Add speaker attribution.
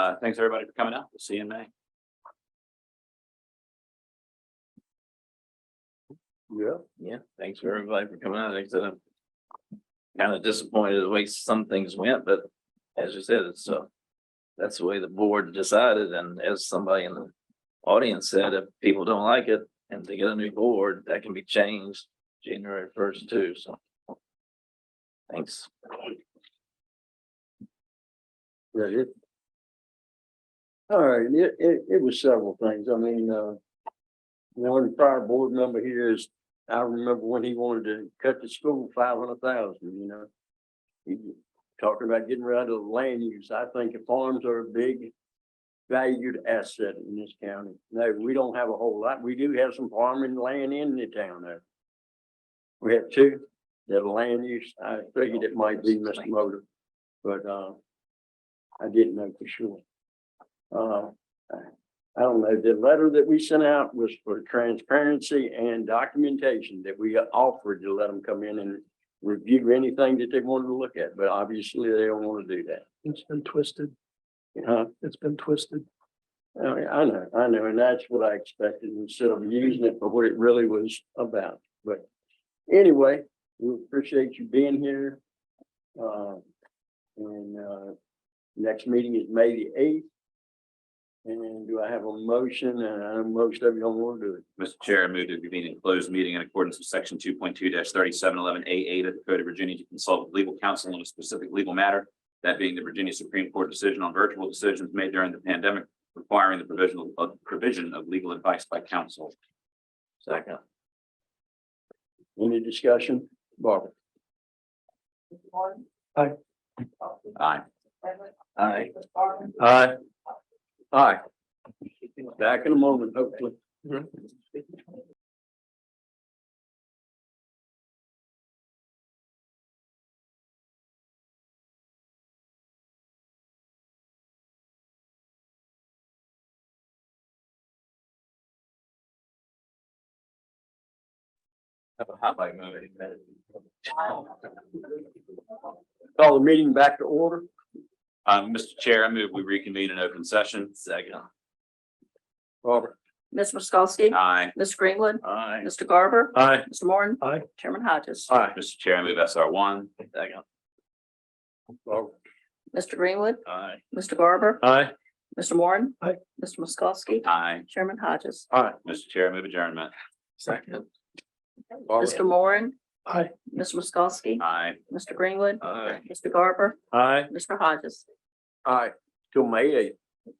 Speaker 1: Uh, thanks everybody for coming out. We'll see you in May.
Speaker 2: Yeah.
Speaker 3: Yeah, thanks for everybody for coming out. Like I said, I'm kind of disappointed the way some things went, but as you said, it's uh that's the way the board decided. And as somebody in the audience said, if people don't like it and they get a new board, that can be changed January first too. So thanks.
Speaker 2: Yeah, it. All right, it, it, it was several things. I mean, uh. You know, the prior board member here is, I remember when he wanted to cut the school five hundred thousand, you know. He was talking about getting rid of the land use. I think the farms are a big. Valued asset in this county. No, we don't have a whole lot. We do have some farming land in the town there. We have two, that are land use, I figured it might be Mr. Motor, but, uh. I didn't know for sure. Uh, I- I don't know, the letter that we sent out was for transparency and documentation that we offered to let them come in and review anything that they wanted to look at, but obviously they don't want to do that.
Speaker 4: It's been twisted.
Speaker 2: Huh?
Speaker 4: It's been twisted.
Speaker 2: I mean, I know, I know, and that's what I expected instead of using it for what it really was about, but anyway, we appreciate you being here. Uh, and, uh, next meeting is May the eighth. And do I have a motion? And I know most of you don't want to do it.
Speaker 1: Mr. Chair, I move to convene a closed meeting in accordance with section two point two thirty-seven eleven A eight of the Code of Virginia to consult with legal counsel on a specific legal matter. That being the Virginia Supreme Court decision on virtual decisions made during the pandemic requiring the provisional of provision of legal advice by counsel.
Speaker 3: Second.
Speaker 2: Any discussion? Barbara?
Speaker 1: Aye.
Speaker 3: Aye.
Speaker 2: Aye. Aye. Back in a moment, hopefully.
Speaker 1: Have a hot mic moment.
Speaker 2: Call the meeting back to order.
Speaker 1: Um, Mr. Chair, I move we reconvene in open session.
Speaker 3: Second.
Speaker 2: Barbara?
Speaker 5: Ms. Moskowsky.
Speaker 1: Aye.
Speaker 5: Mr. Greenwood.
Speaker 3: Aye.
Speaker 5: Mr. Garber.
Speaker 2: Aye.
Speaker 5: Mr. Moore.
Speaker 4: Aye.
Speaker 5: Chairman Hodges.
Speaker 2: Aye.
Speaker 1: Mr. Chair, I move SR one.
Speaker 3: Second.
Speaker 2: Barbara?
Speaker 5: Mr. Greenwood.
Speaker 3: Aye.
Speaker 5: Mr. Garber.
Speaker 2: Aye.
Speaker 5: Mr. Moore.
Speaker 4: Aye.
Speaker 5: Mr. Moskowsky.
Speaker 1: Aye.
Speaker 5: Chairman Hodges.
Speaker 1: Mr. Chair, I move adjournment.
Speaker 3: Second.
Speaker 2: Oh,
Speaker 5: Mr. Moore.
Speaker 4: Aye.
Speaker 5: Ms. Moskowsky.
Speaker 1: Aye.
Speaker 5: Mr. Greenwood.
Speaker 3: Aye.
Speaker 5: Mr. Garber.
Speaker 2: Aye.
Speaker 5: Mr. Hodges.
Speaker 2: Aye. Till May eighth.